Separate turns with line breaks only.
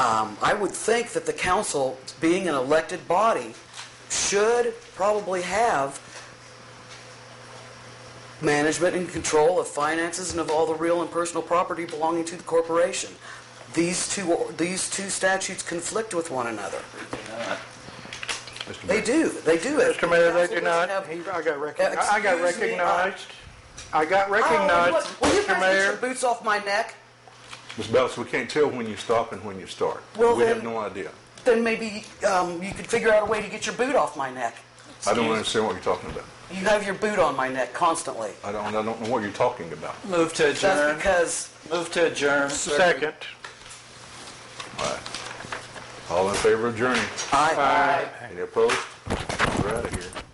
Um, I would think that the council, being an elected body, should probably have management and control of finances and of all the real and personal property belonging to the corporation. These two, these two statutes conflict with one another. They do, they do.
Mr. Mayor, they
Council
do not.
doesn't have-
He- I got
Uh,
recognized. I got
excuse me, I-
recognized. I got
Oh,
recognized,
what- Will you
Mr.
guys get your
Mayor.
boots off my neck?
Ms. Bellis, we can't tell when you stop and when you start.
Well,
We have
then-
no idea.
Then maybe um, you could figure out a way to get your boot off my neck.
I don't understand what you're talking about.
You have your boot on my neck constantly.
I don't, I don't know what you're talking about.
Move to
That's
adjourn.
because
Move to adjourn.
Second.
All in favor of adjourning?
I...
Any opposed? We're out of here.